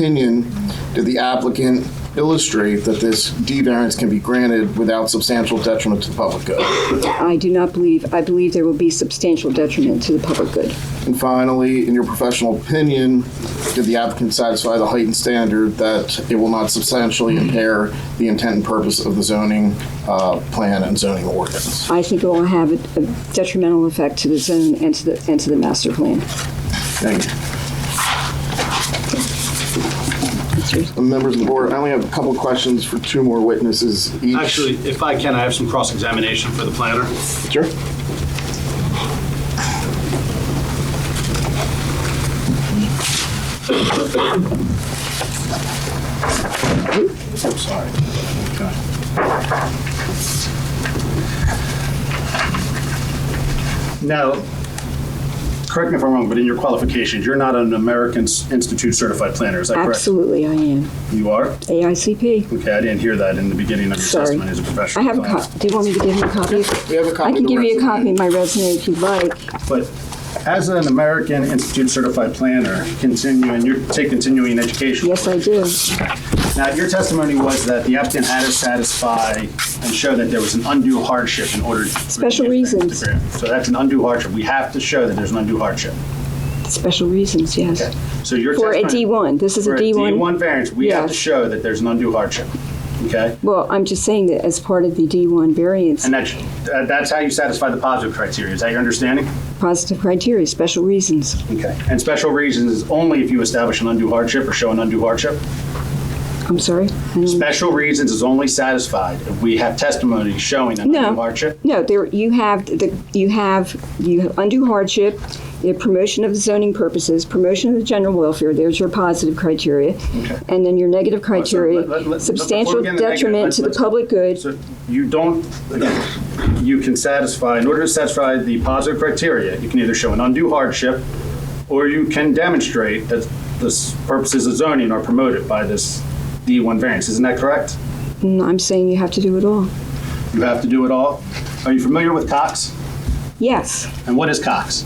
opinion, did the applicant illustrate that this D variance can be granted without substantial detriment to the public good? I do not believe, I believe there will be substantial detriment to the public good. And finally, in your professional opinion, did the applicant satisfy the heightened standard that it will not substantially impair the intent and purpose of the zoning uh, plan and zoning ordinance? I think it will have a- a detrimental effect to the zone and to the, and to the master plan. Thank you. Members of the board, I only have a couple questions for two more witnesses each. Actually, if I can, I have some cross-examination for the planner. Sure. I'm sorry. Okay. Now, correct me if I'm wrong, but in your qualifications, you're not an American Institute certified planner, is that correct? Absolutely, I am. You are? AICP. Okay, I didn't hear that in the beginning of your Sorry. testimony as a I professional. have a planner. copy. Do you want me to give you a copy? We have a copy I can of the give you a resume. copy of my resume if you'd like. But as an American Institute certified planner, continuing, you take continuing education. Yes, I do. Now, your testimony was that the applicant had to satisfy and show that there was an undue hardship in order to. Special reasons. So that's an undue hardship. We have to show that there's an undue hardship. Special reasons, yes. So your For a testimony- D1, this is a For a D1. D1 variance, we have to Yes. show that there's an undue hardship, okay? Well, I'm just saying that as part of the D1 variance, And that's, uh, that's how you satisfy the positive criteria, is that your understanding? positive criteria, special reasons. Okay. And special reasons is only if you establish an undue hardship or show an undue hardship? I'm sorry? I don't- Special reasons is only satisfied if we have testimony showing an No. undue hardship? No, there, you have, the you have, you have undue hardship, the promotion of zoning purposes, promotion of the general welfare, there's your positive criteria. And then your negative criteria, let- let- let- before we substantial get into negative, detriment let's- to the let's- public good. So you don't, again, you can satisfy, in order to satisfy the positive criteria, you can either show an undue hardship or you can demonstrate that the s- purposes of zoning are promoted by this D1 variance. Isn't that correct? And Mm, I'm saying you have to do it all. You have to do it all. Are you familiar with Cox? Yes, And what is Cox?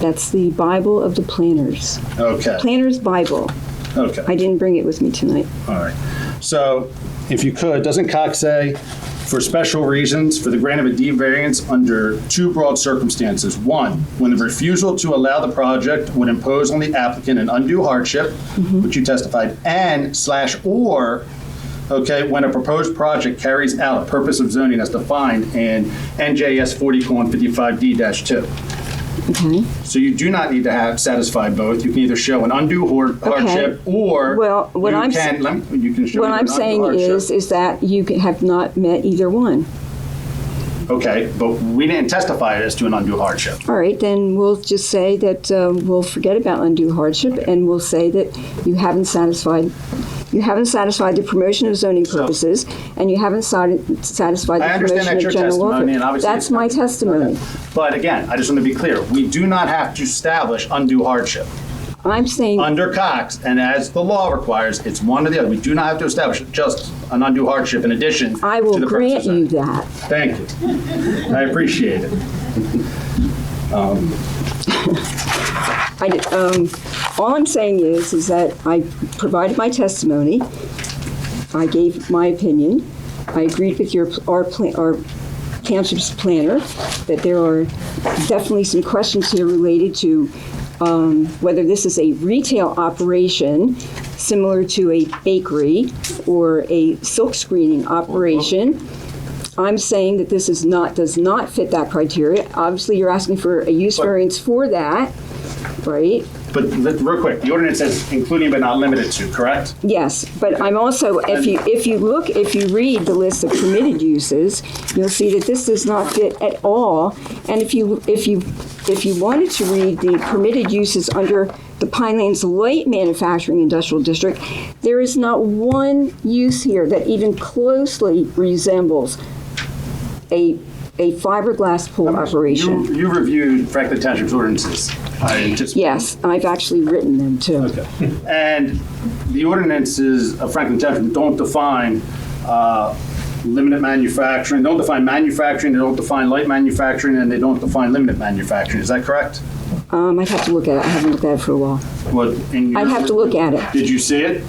that's the Bible of the planners. Okay. Planner's Bible. Okay. I didn't bring it with me tonight. All right. So if you could, doesn't Cox say, for special reasons, for the grant of a D variance under two broad circumstances? One, when the refusal to allow the project would impose on the applicant an undue hardship, Mm-hmm. which you testified, and slash or, okay, when a proposed project carries out a purpose of zoning as defined in NJS 40:55D-2. Okay. So you do not need to have satisfied both. You can either show an undue hor- hardship or Well, what you I'm s- can, lem- you can show What either an I'm undue saying hardship. is, is that you can- have not met either one. Okay, but we didn't testify as to an undue hardship. All right, then we'll just say that uh, we'll forget about undue hardship, and we'll say that you haven't satisfied, you haven't satisfied the promotion of zoning purposes, and you haven't sati- satisfied I the promotion understand that's of your general testimony, welfare. and obviously That's it's not- my testimony. But again, I just want to be clear, we do not have to establish undue hardship. I'm saying, Under Cox, and as the law requires, it's one or the other. We do not have to establish just an undue hardship in addition. I to will the grant purposes of- you that. Thank you. I appreciate it. I did- um, All I'm saying is, is that I provided my testimony, I gave my opinion, I agreed with your, our, pla- our township's planner, that there are definitely some questions here related to um, whether this is a retail operation similar to a bakery or a silk screening operation. I'm saying that this is not, does not fit that criteria. Obviously, you're asking for a use variance for that, right? But let- real quick, the ordinance says including but not limited to, correct? Yes, but I'm also, if you, if you look, if you read the list of permitted uses, you'll see that this does not fit at all. And if you, if you, if you wanted to read the permitted uses under the Pinelands Light Manufacturing Industrial District, there is not one use here that even closely resembles a, a fiberglass pool operation. You you reviewed Franklin Township's ordinances. I anticipate. Yes, I've actually written them too. And the ordinances of Franklin Township don't define uh, limited manufacturing, don't define manufacturing, they don't define light manufacturing, and they don't define limited manufacturing. Is that correct? Um, I'd have to look at it. I haven't looked at it for a while. What, in your- I'd have to look at it. Did you see it?